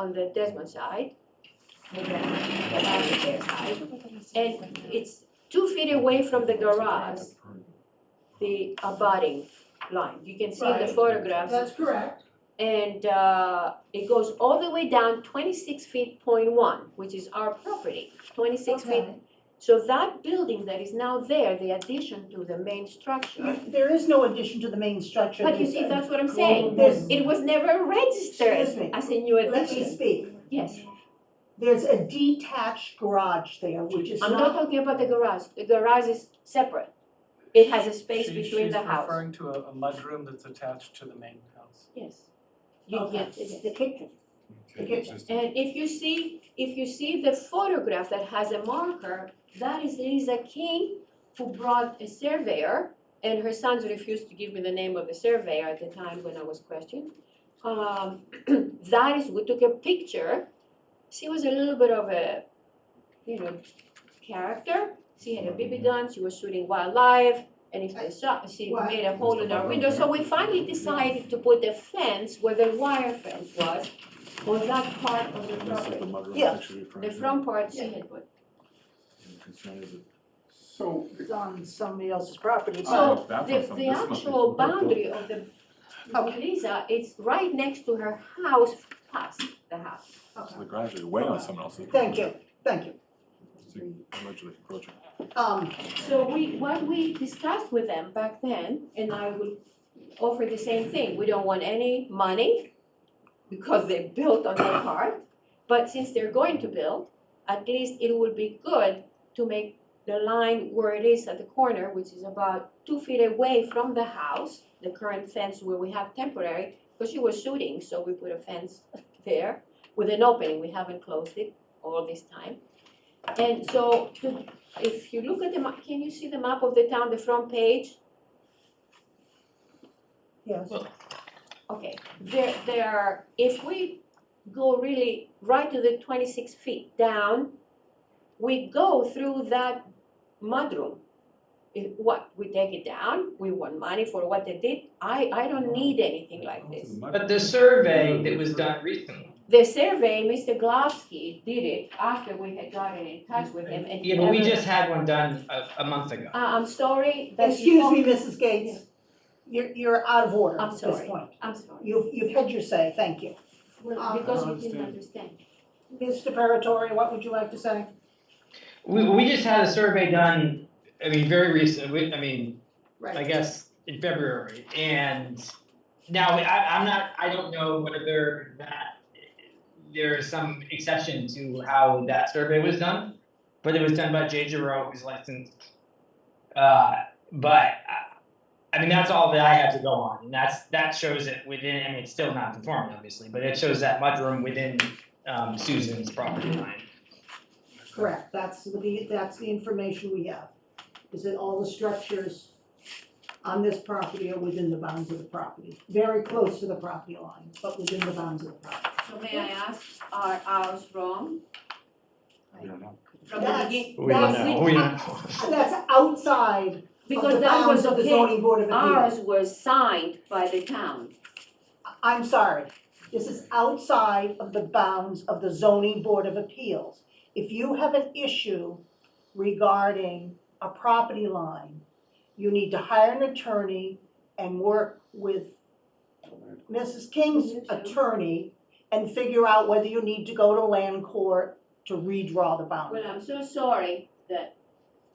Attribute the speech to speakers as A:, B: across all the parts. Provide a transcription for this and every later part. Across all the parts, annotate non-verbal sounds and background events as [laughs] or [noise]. A: on the Desmond side, and then the Lavender side. And it's two feet away from the garage, the abutting line. You can see in the
B: Right.
A: photographs.
B: That's correct.
A: And uh, it goes all the way down twenty-six feet point one, which is our property, twenty-six feet. So that building that is now there, the addition to the main structure,
C: There is no addition to the main structure.
A: but you
C: There's
A: see,
C: a-
A: that's what I'm saying.
C: There's,
A: It was never
C: Excuse
A: registered
C: me.
A: as a new
C: let me
A: addition.
C: speak.
A: Yes,
C: There's a detached garage there, which is
A: I'm not
C: not,
A: talking about the garage. The garage is separate. It has a space
D: She-
A: between the
D: She's
A: house.
D: referring to a, a mudroom that's attached to the main house.
A: Yes. You
C: Okay.
A: get, it's the kitchen.
C: Okay.
A: And if you see, if you see the photograph that has a marker, that is Lisa King, who brought a surveyor, and her sons refused to give me the name of the surveyor at the time when I was questioned. Um, [clears throat] that is, we took a picture, she was a little bit of a, you know, character. She had a BB gun, she was shooting wildlife, and if they shot, she
C: What?
A: made a hole in our window, so we finally decided to put a fence where the wire fence was, on that part of the property.
C: Yeah.
A: The front part she had put.
E: So.
C: it's on somebody else's property.
A: So,
C: but-
E: Oh, that's
A: The, the
E: awesome. This must be
A: actual
E: cool.
A: boundary of the, of Lisa, it's right next to her house, past the house.
E: So
C: okay.
E: The garage is way on someone else's.
C: Thank you, thank you.
E: It's Allegedly encroaching.
C: Um,
A: So we, what we discussed with them back then, and I will offer the same thing, we don't want any money because they built on their part, but since they're going to build, at least it would be good to make the line where it is at the corner, which is about two feet away from the house, the current fence where we have temporary, because she was shooting, so we put a fence [laughs] there with an opening, we haven't closed it all this time. And so to if you look at the map, can you see the map of the town, the front page?
C: yes,
A: Okay, there, there are, if we go really right to the twenty-six feet down, we go through that mudroom. It, what, we take it down, we want money for what they did, I, I don't need anything like this.
F: But the survey that was done recently,
A: The survey, Mr. Glavsky did it after we had gotten in touch with him and he
F: yeah, but we
A: never-
F: just had one done a, a month ago.
A: Uh, I'm sorry, that you
C: excuse
A: won't-
C: me, Mrs. Gates, you're, you're out of order
A: I'm
C: at this
A: sorry.
C: point.
A: I'm sorry,
C: You've, you've had your say, thank you.
A: Well,
C: I
A: because you
E: don't
A: didn't
E: understand.
A: understand.
C: Mr. Paratori, what would you like to say?
F: We, we just had a survey done, I mean, very recent, we, I mean, I guess in February, and now, I, I'm not, I don't know whether that, there is some exception to how that survey was done, but it was done by Jay Giroux, who's licensed. Uh, but, uh, I mean, that's all that I have to go on, and that's, that shows it within, I mean, it's still not conforming, obviously, but it shows that mudroom within, um, Susan's property line.
C: Correct, that's the, that's the information we have, is that all the structures on this property are within the bounds of the property, very close to the property line, but within the bounds of the property.
A: So may I ask, are ours wrong
E: We don't know.
A: from the
C: That's-
A: beginning?
C: We don't
A: That's
C: know.
A: it.
C: we don't That's outside of
A: Because
C: the
A: that was
C: bounds of the
A: okay,
C: zoning board of appeals.
A: ours was signed by the town.
C: I'm sorry, this is outside of the bounds of the zoning board of appeals. If you have an issue regarding a property line, you need to hire an attorney and work with Mrs. King's attorney and figure out whether you need to go to land court to redraw the boundary.
A: Well, I'm so sorry that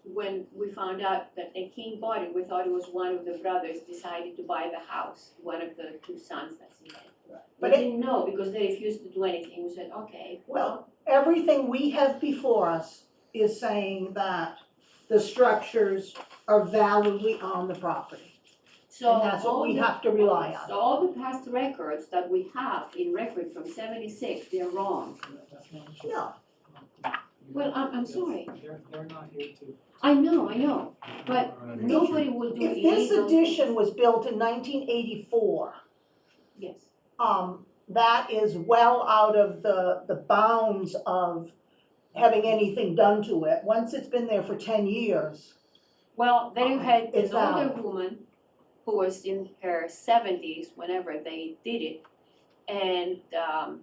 A: when we found out that the king bought it, we thought it was one of the brothers decided to buy the house, one of the two sons that he had. We
C: But it-
A: didn't know because they refused to do anything. We said, okay,
C: Well, everything we have before us is saying that the structures are validly on the property.
A: so
C: And that's what
A: all
C: we
A: the-
C: have to rely on.
A: So all the past records that we have in record from seventy-six, they're wrong.
C: No,
A: Well, I'm, I'm sorry.
D: They're, they're not here to.
A: I know, I know. But Nobody will do
C: if
A: illegal.
C: this addition was built in nineteen eighty-four,
A: Yes,
C: um, that is well out of the, the bounds of having anything done to it. Once it's been there for ten years,
A: well, then you had
C: It's
A: an older
C: out.
A: woman who was in her seventies whenever they did it. And um